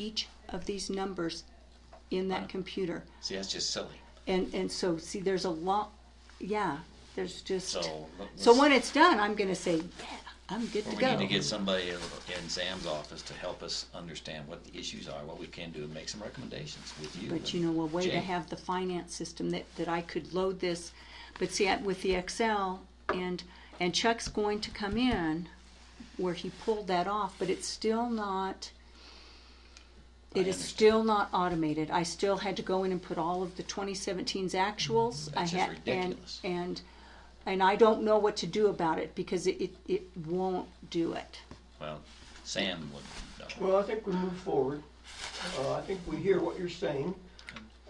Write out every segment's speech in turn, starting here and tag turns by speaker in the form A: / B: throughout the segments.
A: each of these numbers in that computer.
B: See, that's just silly.
A: And, and so, see, there's a lot, yeah, there's just,
B: So, let-
A: so
B: let's-
A: when it's done, I'm gonna say, yeah, I'm good to
B: Well,
A: go.
B: we need to get somebody in Sam's office to help us understand what the issues are, what we can do, and make some recommendations with you.
A: But
B: and
A: you know, a way to
B: Jay.
A: have the finance system that, that I could load this, but see, I- with the Excel and, and Chuck's going to come in where he pulled that off, but it's still not,
B: I
A: it is
B: understand.
A: still not automated. I still had to go in and put all of the 2017's actuals. I
B: That's just
A: had- and-
B: ridiculous.
A: And, and I don't know what to do about it because it, it, it won't do it.
B: Well, Sam would know.
C: Well, I think we move forward. Uh, I think we hear what you're saying.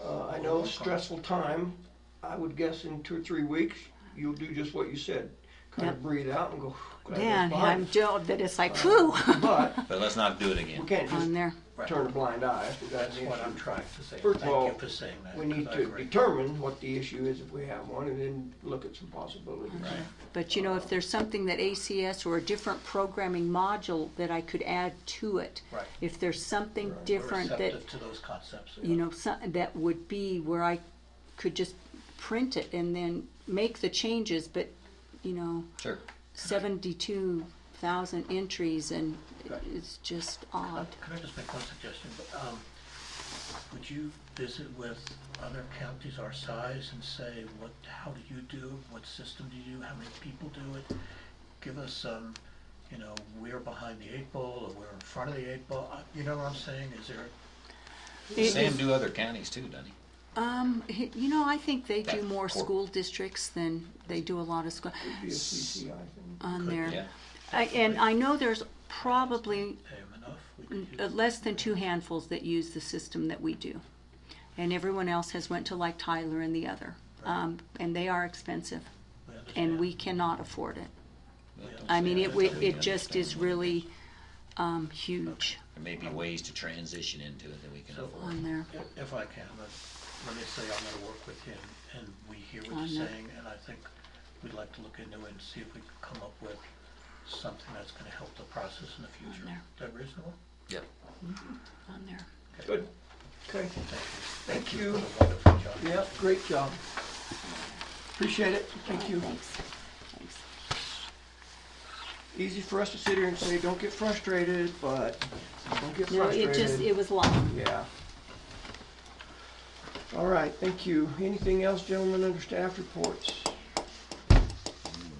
C: Uh, I know stressful time. I would guess in two or three weeks, you'll do just what you said. Kind
A: Yep.
C: of breathe out and go, glad that's
A: Dan, I'm
C: behind.
A: Joe, that it's like, whew,
C: But
B: But let's not do it again.
C: we can't
A: on
C: just
A: there.
C: turn a blind eye. I think
D: That's what I'm
C: trying.
D: trying to say.
C: First of all,
D: Thank you for saying that.
C: We need
D: 'cause I
C: to
D: agree.
C: determine what the issue is if we have one and then look at some possibilities.
B: Right.
A: But you know, if there's something that ACS or a different programming module that I could add to it.
D: Right.
A: If there's something
C: Right.
D: We're
A: different that,
D: receptive to those concepts.
A: you know, some, that would be where I could just print it and then make the changes, but, you know,
B: Sure.
A: seventy-two thousand entries and
C: Right.
A: it's just
D: Uh,
A: odd.
D: Can I just make one suggestion? But, um, Would you visit with other counties our size and say, what, how do you do? it? What system do you do? How many people do it? Give us some, you know, we're behind the eight ball or we're in front of the eight ball. Uh, You know what I'm saying? Is there,
A: It
B: Sam
A: is-
B: do other counties too, doesn't he?
A: Um, he- you know, I think they do
B: That
A: more
B: cor-
A: school districts than they do a lot of school
C: It'd be a CCI thing.
A: on
D: Could-
A: there.
B: Yeah.
A: I, and I know there's probably
D: pay 'em enough? We could
A: n-
D: use-
A: uh, less than two handfuls that use the system that we do. And everyone else has went to like Tyler and the other. Um, and they are expensive
D: we
A: and
D: understand.
A: we cannot afford it.
B: Well, don't
A: I
B: say
A: mean,
B: that
A: it,
B: until
A: it,
B: we
A: it just is
B: understand what it
A: really, um, huge
B: There may be ways to transition into it that we can
D: So-
B: afford.
A: on there.
D: If- If I can, let- let me say I'm gonna work with him, and we hear
A: I
D: what
A: know.
D: you're saying, and I think we'd like to look into it and see if we can come up with something that's gonna help the process in the future.
A: there.
D: Is that reasonable?
B: Yep.
A: On there.
C: Good. Okay. Thank you.
D: What a wonderful job.
C: Yep, great job. Appreciate it. Thank you.
A: Thanks. Thanks.
C: easy for us to sit here and say, don't get frustrated, but don't get
A: No, it just,
C: frustrated.
A: it was long.
C: Yeah. All right, thank you. Anything else, gentlemen, under staff reports?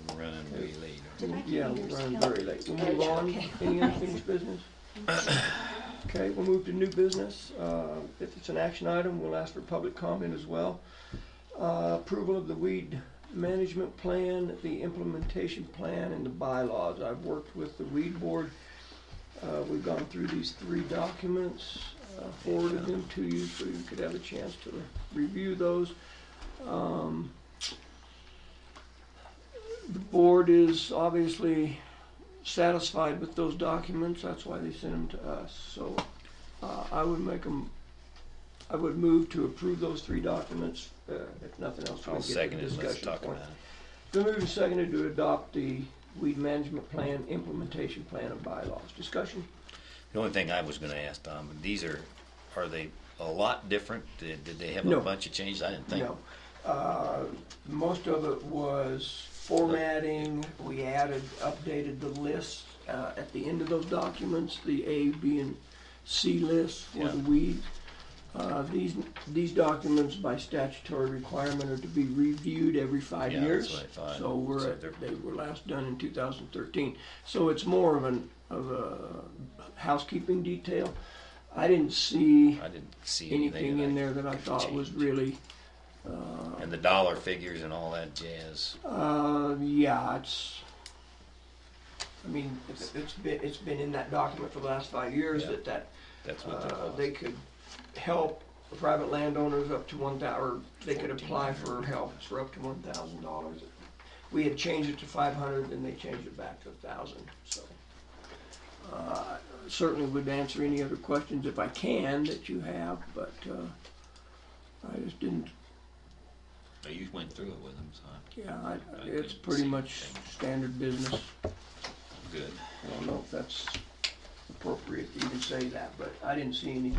B: We're Running way late.
C: Yeah, we're running very late. We'll move on. Any unfinished business? Okay, we'll move to new business. Uh, If it's an action item, we'll ask for public comment as well. Uh, Approval of the weed management plan, the implementation plan, and the bylaws. I've worked with the weed board. Uh, We've gone through these three documents, uh, forwarded them to you so you could have a chance to review those. Um, The board is obviously satisfied with those documents, that's why they sent them to us. So uh, I would make them, I would move to approve those three documents, uh, if nothing else. we
B: I'll
C: get to
B: second
C: the
B: it. Let's
C: discussion
B: talk
C: point.
B: about it.
C: Been moved and seconded to adopt the weed management plan, implementation plan and bylaws. Discussion?
B: The only thing I was gonna ask, Tom, these are, are they a lot different? Did, did they have
C: No.
B: a bunch of changes? I didn't think.
C: No. Uh, Most of it was formatting. We added, updated the list uh, at the end of those documents, the A, B, and C lists for the
B: Yeah.
C: weed. Uh, These, these documents by statutory requirement are to be reviewed every five
B: Yeah, that's
C: years.
B: what I thought.
C: So we're,
B: So they're-
C: at- they were last done in 2013. So it's more of an, of a housekeeping detail. I didn't see
B: I didn't see anything.
C: anything
B: that
C: in
B: I-
C: there that I thought was
B: change.
C: really
B: And the dollar figures and all that jazz.
C: Uh, yeah, it's, I mean, it's, it's been, it's been in that document for the last five years
B: Yeah.
C: that that,
B: That's what they're
C: uh,
B: called.
C: they could help private landowners up to one thou, or they could apply for help for up to one thousand dollars. We had changed it to five hundred, then they changed it back to a thousand, so. Uh, certainly would answer any other questions if I can that you have, but, uh, I just didn't
B: Oh, You went through it with them, so
C: Yeah, I- it's pretty much standard business.
B: good.
C: I don't know if that's appropriate to even say that, but I didn't see anything